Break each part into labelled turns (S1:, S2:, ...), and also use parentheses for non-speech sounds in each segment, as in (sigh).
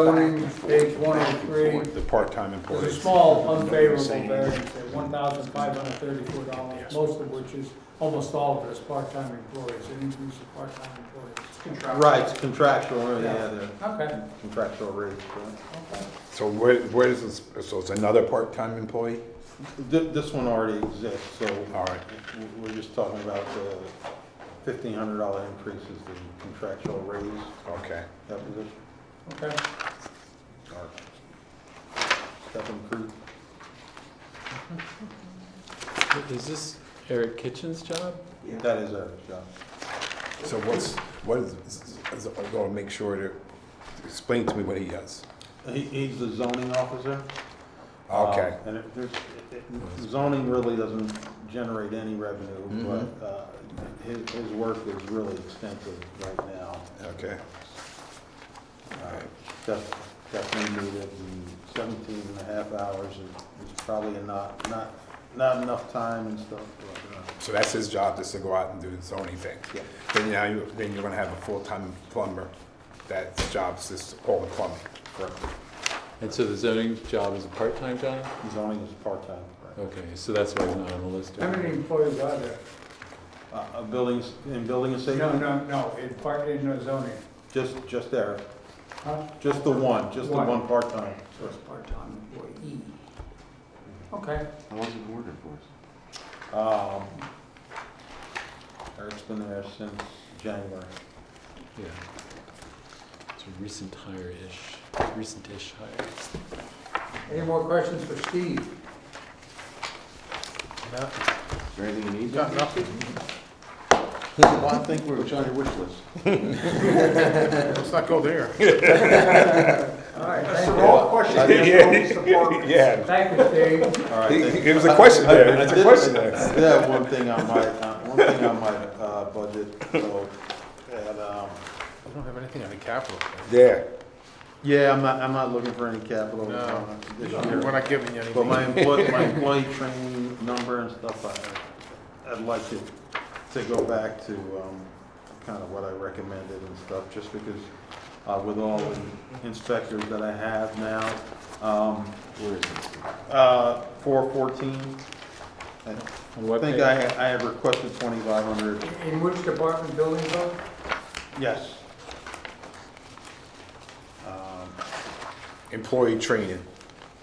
S1: zoning, page one oh three,
S2: The part-time
S1: there's a
S2: employees.
S1: small unfavorable variance at one thousand five hundred thirty-four dollars, most of which is, almost all of it is part-time employees, an increase of part-time employees.
S3: Right, it's contractual, or yeah, the
S1: Okay,
S3: contractual rate.
S1: okay.
S2: So where, where is this, so it's another part-time employee?
S3: Th- This one already exists, so
S2: All right.
S3: w- we're just talking about the fifteen hundred dollar increase is the contractual raise.
S2: Okay.
S3: That position,
S1: Okay,
S2: All right.
S3: Stephen Creed.
S4: Is this Eric Kitchen's job?
S3: That is our job.
S2: So what's, what is, is- I'm gonna make sure to, explain to me what he does.
S3: He, he's the zoning officer.
S1: Um,
S2: Okay,
S3: Uh, And it, there's, it- it- zoning really doesn't generate any revenue,
S2: Mm-hmm.
S3: but, uh, his, his work is really extensive right now.
S2: okay.
S3: Uh, Def- Definitely needed, and seventeen and a half hours is is probably not, not, not enough time and stuff, but, uh,
S2: So that's his job, just to go out and do his zoning thing.
S3: Yeah.
S2: Then now you, then you're gonna have a full-time plumber, that job's just all the plumbing. Correct.
S4: And so the zoning job is a part-time job?
S3: zoning is part-time. right?
S4: Okay, so that's why he's not on the list.
S1: how many employees are there?
S3: Uh, uh, buildings, in building and
S1: No,
S3: safety,
S1: no, no, in part, in the zoning,
S3: just, just there,
S1: huh?
S3: just the one, just the
S1: One.
S3: one part-time.
S1: So it's part-time employee. Okay,
S5: How long's it been working for us?
S3: Um, Eric's been there since January.
S4: Yeah. It's a recent hire-ish, recent-ish hire.
S1: any more questions for Steve?
S5: Is there anything you need?
S3: Got nothing?
S5: Well, I think we're. What's on your wish list?
S2: Let's not go there.
S1: All right, thank
S3: the
S1: you.
S3: wrong
S2: Yeah,
S1: Thank you, Steve.
S3: All right,
S2: He-
S3: thank-
S2: he- it was a question
S3: I- I-
S2: there.
S3: I
S2: It's a
S3: did-
S2: question
S3: I
S2: there.
S3: did have one thing on my, uh, one thing on my uh, budget, so, and, um,
S6: I don't have anything on the capital.
S2: yeah.
S3: yeah, I'm not, I'm not looking for any capital uh,
S6: No.
S3: this
S6: We're
S3: year.
S6: not giving you anything.
S3: But my employee, my employee training number and stuff, I, I'd like to, to go back to um, kind of what I recommended and stuff, just because uh, with all the inspectors that I have now, um,
S5: Where is it?
S3: uh, 414, I-
S4: On
S3: I
S4: what
S3: think
S4: page?
S3: I, I had requested twenty-five hundred,
S1: In which department building though?
S3: yes. Um,
S2: Employee training.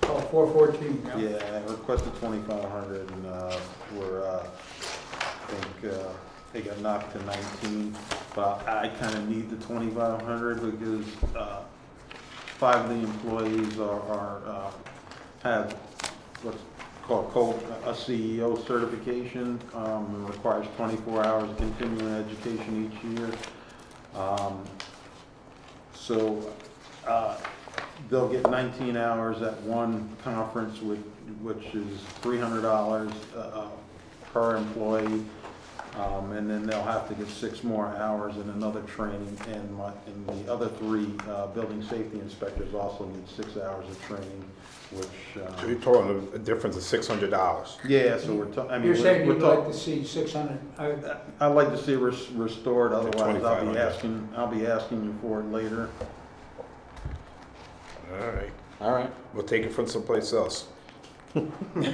S1: Oh, four fourteen, yeah.
S3: Yeah, I requested twenty-five hundred and, uh, we're, uh, I think, uh, they got knocked to nineteen, but I kinda need the twenty-five hundred because, uh, five of the employees are, are, uh, have what's called co- a CEO certification, um, it requires twenty-four hours of continuing education each year. Um, so, uh, they'll get nineteen hours at one conference, which, which is three hundred dollars, uh, per employee. Um, and then they'll have to get six more hours in another training, and my, and the other three, uh, building safety inspectors also need six hours of training, which,
S2: So you're
S3: uh,
S2: talking a difference of six hundred dollars.
S3: yeah, so we're, ta- I mean,
S1: You're saying
S3: we're, we're
S1: you'd like
S3: talking.
S1: to see six hundred, uh,
S3: I'd like to see it res- restored, otherwise I'll
S2: 2500.
S3: be asking, I'll be asking you for it later.
S2: All right.
S5: All right.
S2: We'll take it from someplace else.
S5: (laughs)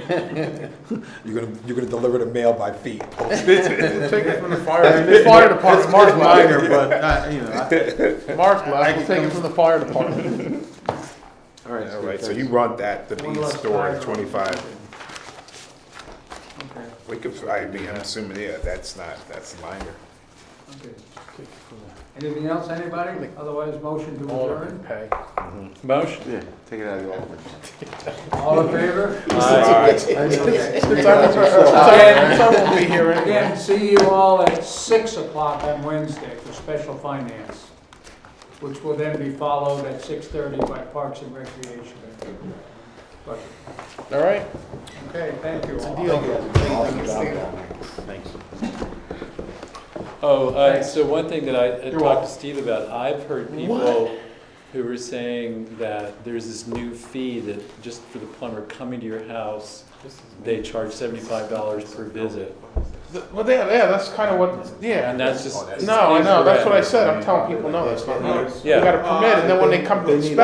S2: you're gonna you're gonna deliver the mail by feet.
S6: We'll Take it
S3: (laughs)
S6: from the fire, the fire department, Mark left,
S3: Minor, but, uh, you know, I-
S6: Mark left, we'll take it from the fire
S3: (laughs)
S6: department.
S5: All right.
S2: All right. So you want that to
S1: one
S2: be
S1: less
S2: stored
S1: tire.
S2: twenty five.
S1: Okay,
S2: We could. I mean, I'm assuming yeah. That's not. That's minor.
S1: okay. Anything else, anybody? Otherwise, motion to
S6: Alderman
S1: adjourn.
S6: pay.
S4: Motion?
S5: Yeah, (laughs) take it out of the office.
S1: All in
S6: (laughs)
S1: favor? Okay.
S6: Since I since I won't be here anyway.
S1: Again, see you all at six o'clock on Wednesday for special finance, which will then be followed at six thirty by Parks and Recreation. But,
S6: All right?
S1: okay, thank you all.
S3: Thanks.
S4: Oh, uh, so one thing that I I talked to Steve about, I've heard people who were saying that there's this new fee that just for the plumber coming to your house, they charge seventy-five dollars per visit.
S6: Well, yeah, yeah, that's kind of what,
S4: And
S6: yeah.
S4: that's just.
S6: No, I know, that's what I
S4: incorrect.
S6: said, I'm telling people, no, that's not, right. you
S4: Yeah.
S6: gotta permit, and then when they come to inspect.